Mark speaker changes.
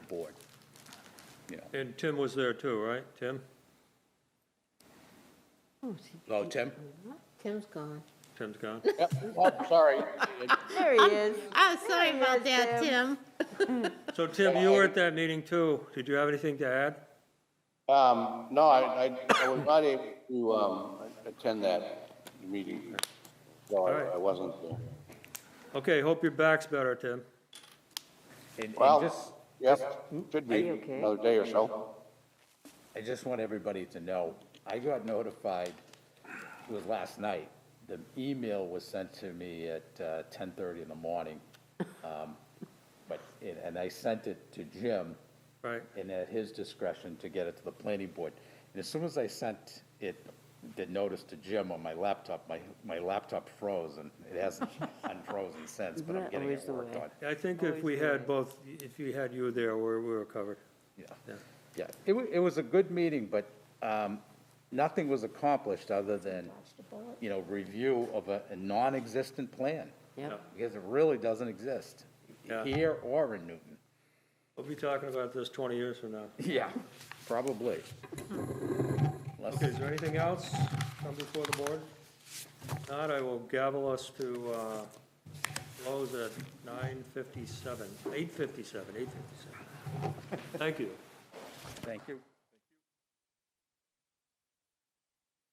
Speaker 1: board. You know,
Speaker 2: And Tim was there too, right? Tim?
Speaker 3: Oh, is he-
Speaker 1: hello, Tim?
Speaker 3: Tim's gone.
Speaker 2: Tim's gone.
Speaker 4: Oh, sorry.
Speaker 5: There he is.
Speaker 3: Oh, sorry
Speaker 5: he
Speaker 3: about
Speaker 5: is,
Speaker 3: that, Tim.
Speaker 2: So Tim, you were at that meeting too. Did you have anything to add?
Speaker 4: Um, no, I, I- I was not able to, um, attend that meeting, so
Speaker 2: All right.
Speaker 4: I I wasn't there.
Speaker 2: Okay, hope your back's better, Tim.
Speaker 1: And- and just-
Speaker 4: Well, yep, should
Speaker 5: Are
Speaker 4: be,
Speaker 5: you okay?
Speaker 4: another day or so.
Speaker 1: I just want everybody to know, I got notified, it was last night. The email was sent to me at uh, 10:30 in the morning. Um, But, and and I sent it to Jim.
Speaker 2: Right.
Speaker 1: And at his discretion to get it to the planning board. And as soon as I sent it, the notice to Jim on my laptop, my, my laptop froze and it hasn't unfrozen since,
Speaker 5: Isn't
Speaker 1: but I'm
Speaker 5: that
Speaker 1: getting
Speaker 5: always
Speaker 1: it
Speaker 5: the
Speaker 1: worked
Speaker 5: way?
Speaker 1: on.
Speaker 2: I think if we had both, if you had you there, we're, we were covered.
Speaker 1: Yeah.
Speaker 2: Yeah.
Speaker 1: Yeah, it wa, it was a good meeting, but, um, nothing was accomplished other than, you know, review of a, a non-existent plan.
Speaker 5: Yep.
Speaker 1: Because it really doesn't exist,
Speaker 2: Yeah.
Speaker 1: here or in Newton.
Speaker 2: We'll be talking about this 20 years from now.
Speaker 1: Yeah. Probably. Unless-
Speaker 2: Okay, is there anything else come before the board? If Not, I will gavel us to uh, close at 9:57, 8:57, 8:57. Thank you.
Speaker 1: Thank you.